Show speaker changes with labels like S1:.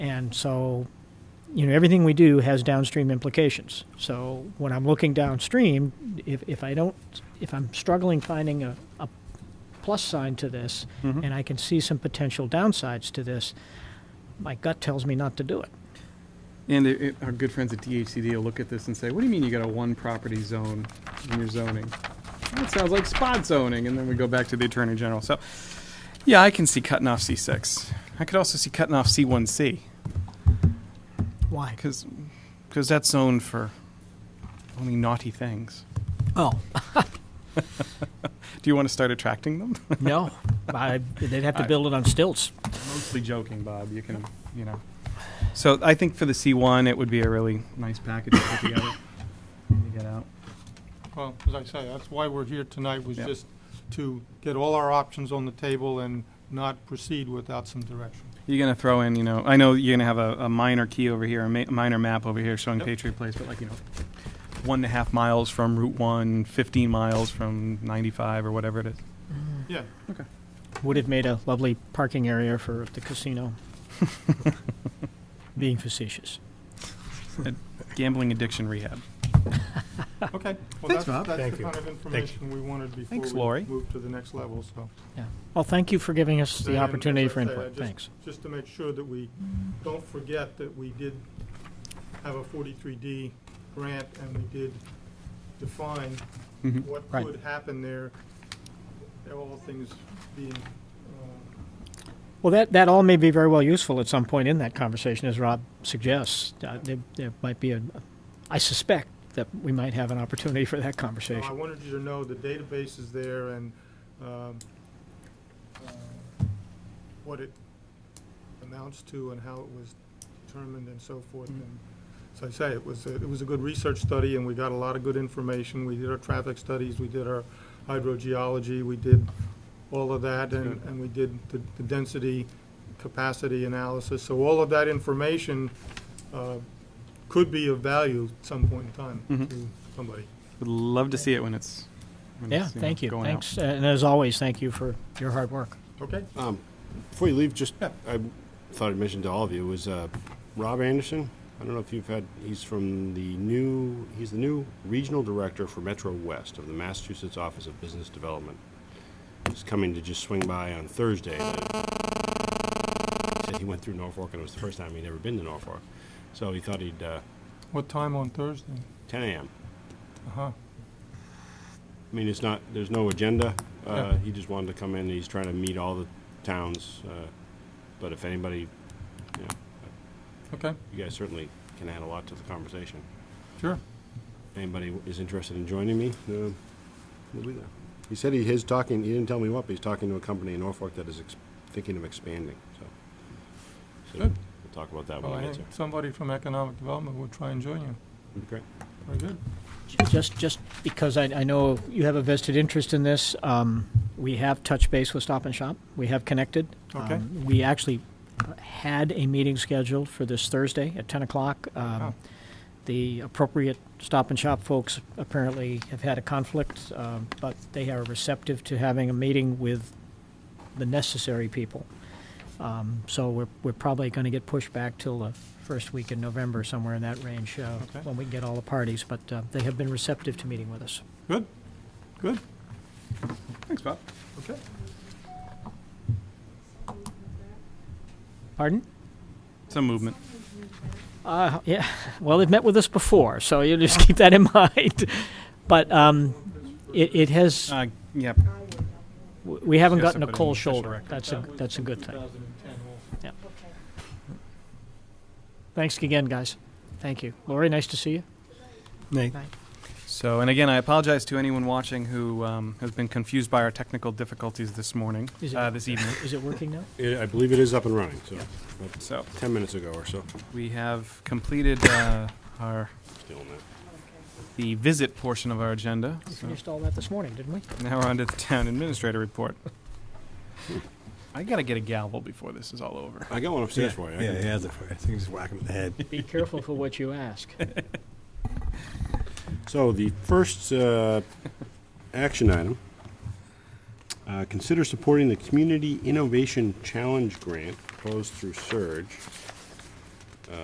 S1: And so, you know, everything we do has downstream implications. So when I'm looking downstream, if, if I don't, if I'm struggling finding a, a plus sign to this
S2: Mhm.
S1: and I can see some potential downsides to this, my gut tells me not to do it.
S2: And it- it- our good friends at DHCD will look at this and say, what do you mean you got a one property zone in your zoning? That sounds like spot zoning, and then we go back to the Attorney General. So, yeah, I can see cutting off C6. I could also see cutting off C1C,
S1: Why?
S2: because, because that's zoned for only naughty things.
S1: Oh,
S2: Do you want to start attracting them?
S1: no. I, they'd have to
S2: I-
S1: build it on stilts.
S2: Mostly joking, Bob, you can, you know. So I think for the C1, it would be a really nice package to put together, to get out.
S3: Well, as I say, that's why we're here tonight, was
S2: Yeah.
S3: just to get all our options on the table and not proceed without some direction.
S2: You're gonna throw in, you know, I know you're gonna have a, a minor key over here, a ma- minor map over here showing
S3: Yep.
S2: Patriot Place, but like, you know, one and a half miles from Route One, 15 miles from 95 or whatever it is.
S3: Yeah.
S1: Would have made a lovely parking area for the casino. Being facetious.
S2: Gambling addiction rehab.
S3: Okay. Well,
S2: Thanks,
S3: that's-
S2: Bob.
S3: That's
S4: Thank
S3: the
S4: you.
S3: kind of information we wanted
S2: Thanks,
S3: before
S2: Lori.
S3: we moved to the next level, so.
S1: Well, thank you for giving us the
S3: And as
S1: opportunity
S3: I
S1: for
S3: say, I
S1: input.
S3: just-
S1: Thanks.
S3: Just to make sure that we don't forget that we did have a 43D grant and we did define
S2: Mhm.
S3: what
S1: Right.
S3: could happen there, all things being uh,
S1: Well, that, that all may be very well useful at some point in that conversation, as Rob suggests. Uh, there, there might be a, I suspect that we might have an opportunity for that
S3: So I
S1: conversation.
S3: wanted you to know the database is there and um, uh, what it amounts to and how it was determined and so forth. And As I say, it was, a- it was a good research study and we got a lot of good information. We did our traffic studies, we did our hydrogeology, we did all of that and,
S2: Good.
S3: and we did the the density capacity analysis. So all of that information uh, could be of value at some point in time
S2: Mhm.
S3: to somebody.
S2: Would love to see it when it's. When
S1: Yeah,
S2: it's, know,
S1: thank you.
S2: going out.
S1: Thanks. Uh, and as always, thank you for your hard work.
S3: Okay?
S4: Um, Before you leave, just, I thought I'd mention to all of you, was uh, Rob Anderson. I don't know if you've had, he's from the new, he's the new Regional Director for Metro West of the Massachusetts Office of Business Development. He's coming to just swing by on Thursday. He Said he went through Norfolk, and it was the first time he'd ever been to Norfolk. So he thought he'd, uh,
S3: What time on Thursday?
S4: 10 a.m.
S3: Uh-huh.
S4: I mean, it's not, there's no agenda. Uh,
S3: Yeah.
S4: He just wanted to come in, he's trying to meet all the towns, uh, but if anybody, you know,
S3: Okay,
S4: You guys certainly can add a lot to the conversation.
S3: sure.
S4: Anybody is interested in joining me, uh, we'll be there. He said he is talking, he didn't tell me what, but he's talking to a company in Norfolk that is ex- thinking of expanding, so. So
S3: Good.
S4: We'll talk about that
S3: Well,
S4: when we
S3: I
S4: get there.
S3: think somebody from Economic Development would try and join you.
S4: That'd be Great.
S3: Very good.
S1: Just, just because I, I know you have a vested interest in this, um, we have touched base with Stop and Shop. We have connected.
S3: Okay.
S1: Um, we actually had a meeting scheduled for this Thursday at 10 o'clock. Um,
S3: Oh.
S1: The appropriate Stop and Shop folks apparently have had a conflict, um, but they are receptive to having a meeting with the necessary people. Um, so we're, we're probably going to get pushed back till the first week in November, somewhere in that range, uh,
S3: Okay.
S1: when we get all the parties. But uh, they have been receptive to meeting with us.
S3: Good, good,
S2: Thanks, Bob.
S3: okay.
S1: Pardon?
S2: Some movement.
S1: Uh, yeah. Well, they've met with us before, so you just keep that in mind. But um, it, it has.
S2: Uh, yeah,
S1: w- We haven't
S2: Yes,
S1: gotten a
S2: I put it in
S1: cold
S2: the official
S1: shoulder.
S2: record.
S1: That's a
S3: That was
S1: that's a
S3: in
S1: good thing.
S3: 2010 also.
S1: Thanks again, guys. Thank you, Lori. Nice to see you.
S2: So, and again, I apologize to anyone watching who um, has been confused by our technical difficulties this morning,
S1: Is it-
S2: uh, this evening.
S1: Is it working now?
S4: I believe it is up and running, so, about
S2: So,
S4: ten minutes ago or so,
S2: we have completed uh, our
S4: still in there.
S2: the visit portion of our agenda.
S1: We
S2: So
S1: finished all that this morning, didn't we?
S2: now we're on to the town administrator report. I gotta get a gavel before this is all over.
S4: I got one upstairs for you. I
S5: Yeah,
S4: can-
S5: he has it for you. I think just whack him in the head.
S1: Be careful for what you ask.
S4: So the first uh, action item, uh, consider supporting the Community Innovation Challenge Grant proposed through Surge